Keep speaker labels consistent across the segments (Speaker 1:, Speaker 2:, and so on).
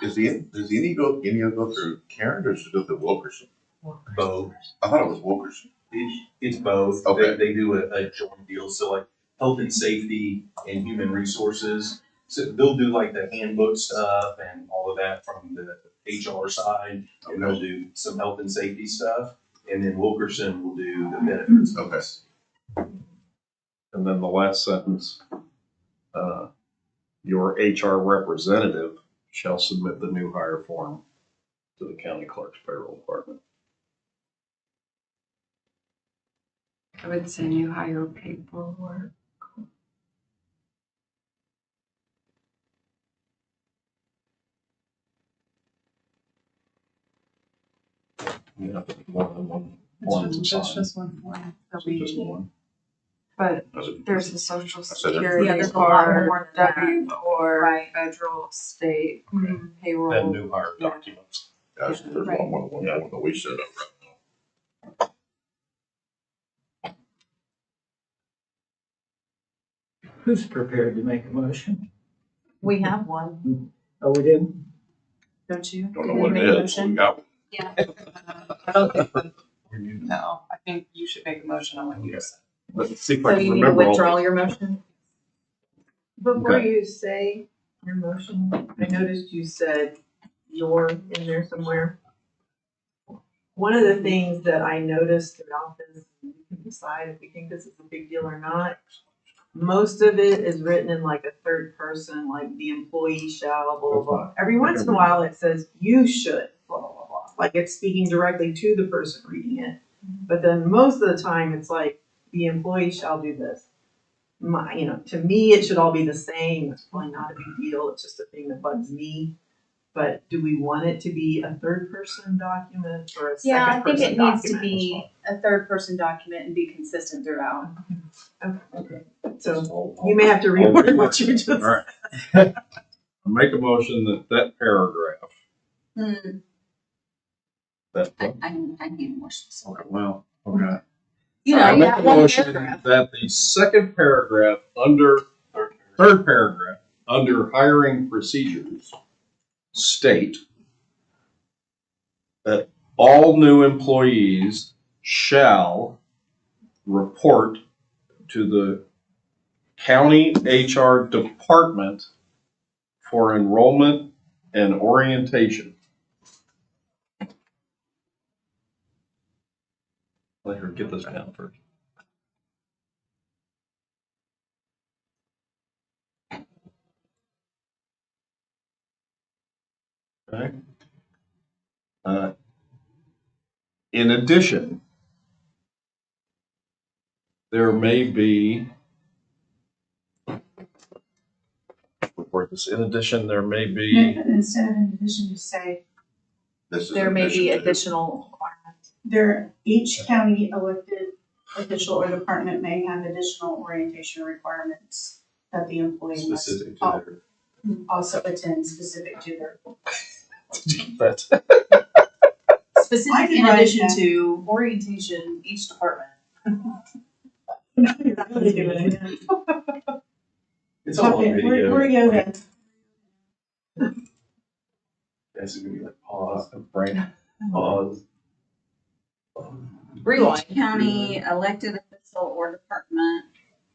Speaker 1: Is the, does any go, any of go through Karen or does it go through Wilkerson?
Speaker 2: both.
Speaker 1: I thought it was Wilkerson.
Speaker 2: It's, it's both.
Speaker 1: Okay.
Speaker 2: They, they do a, a joint deal, so like health and safety and human resources. So they'll do like the handbook stuff and all of that from the HR side. And they'll do some health and safety stuff. And then Wilkerson will do the benefits.
Speaker 1: Okay.
Speaker 3: And then the last sentence, uh, your HR representative shall submit the new hire form to the county clerk's payroll department.
Speaker 4: I would say new hire paperwork.
Speaker 3: You have to put more than one form to
Speaker 4: That's just- that's
Speaker 3: sign.
Speaker 4: just one form that
Speaker 3: Just
Speaker 4: we,
Speaker 3: one.
Speaker 4: but
Speaker 1: That's it.
Speaker 4: there's the social
Speaker 1: said it.
Speaker 5: Yeah,
Speaker 4: security
Speaker 5: there's a lot
Speaker 4: bar,
Speaker 5: more than that.
Speaker 4: W or
Speaker 5: Right.
Speaker 4: federal, state
Speaker 3: And
Speaker 4: payroll.
Speaker 3: new hire documents.
Speaker 1: Guys, there's
Speaker 4: Right.
Speaker 1: one, one, one, one that we set up right now.
Speaker 6: Who's prepared to make a motion?
Speaker 5: We have one,
Speaker 6: Oh, we didn't?
Speaker 5: don't you?
Speaker 1: Don't know
Speaker 5: Did we
Speaker 1: what
Speaker 5: make
Speaker 1: it
Speaker 5: a
Speaker 1: is. but
Speaker 5: motion?
Speaker 1: We got,
Speaker 4: I don't think, no, I think you should make a motion on what you just said.
Speaker 3: Let's see if
Speaker 5: So
Speaker 3: I can
Speaker 5: you need to
Speaker 3: remember all
Speaker 5: withdraw
Speaker 3: the
Speaker 5: your motion?
Speaker 7: Before
Speaker 3: Okay.
Speaker 7: you say your motion, I noticed you said your in there somewhere. One of the things that I noticed throughout this, and you can decide if you think this is a big deal or not. Most of it is written in like a third person, like the employee shall, blah, blah, blah. Every once in a while, it says you should, blah, blah, blah, blah. Like it's speaking directly to the person reading it. But then most of the time, it's like the employee shall do this my, you know, to me, it should all be the same. It's probably not a big deal. It's just a thing that bugs me. But do we want it to be a third person document or a
Speaker 5: Yeah, I
Speaker 7: second
Speaker 5: think
Speaker 7: person
Speaker 5: it needs to
Speaker 7: document?
Speaker 5: be a third person document and be consistent throughout.
Speaker 7: So you may have to reword what you just.
Speaker 3: All right. I Make a motion that that paragraph, that,
Speaker 5: I, I need more.
Speaker 3: okay, well, okay.
Speaker 5: You
Speaker 3: I
Speaker 5: know,
Speaker 3: make
Speaker 5: yeah,
Speaker 3: a
Speaker 5: one
Speaker 3: motion
Speaker 5: paragraph.
Speaker 3: That the second paragraph under, or third paragraph, under hiring procedures, state that all new employees shall report to the county HR department for enrollment and orientation. Let her get this down first. Okay. Uh, In addition, there may be. Report this, in addition, there may be,
Speaker 5: Instead of an addition, just say,
Speaker 1: this is.
Speaker 5: there may be
Speaker 1: addition to-
Speaker 5: additional requirements.
Speaker 8: There, each county elected official or department may have additional orientation requirements that the employee must
Speaker 2: Specific to their,
Speaker 8: also attend specific to their
Speaker 5: Hmm.
Speaker 3: but
Speaker 8: I
Speaker 5: Specific
Speaker 8: can
Speaker 5: in
Speaker 8: write
Speaker 5: addition
Speaker 8: that.
Speaker 5: to orientation, each department.
Speaker 2: it's all on
Speaker 8: Okay, We're,
Speaker 2: video.
Speaker 8: we're yoga.
Speaker 2: That's gonna be like pause,
Speaker 3: brain,
Speaker 2: pause.
Speaker 5: Rewind.
Speaker 9: Each county elected official or department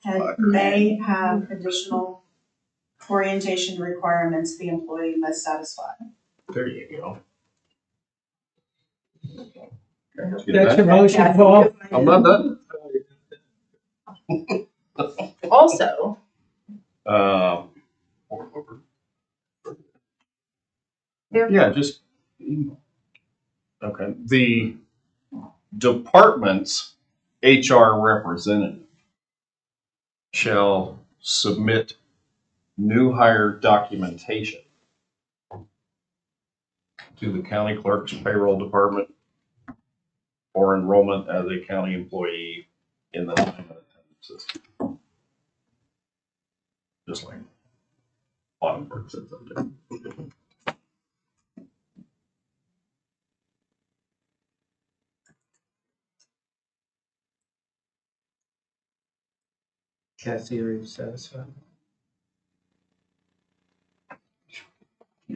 Speaker 8: And may have additional orientation requirements the employee must satisfy.
Speaker 3: there you go. Okay, get
Speaker 6: That's
Speaker 3: that?
Speaker 6: your motion, Paul?
Speaker 3: I'm not done.
Speaker 5: Also,
Speaker 3: Um,
Speaker 1: Or- or-
Speaker 3: Yeah, just. Okay, the department's HR representative shall submit new hire documentation to the county clerk's payroll department for enrollment as a county employee in the time and attendance system. Just like bottom part says up there.
Speaker 6: Kathy, are you satisfied?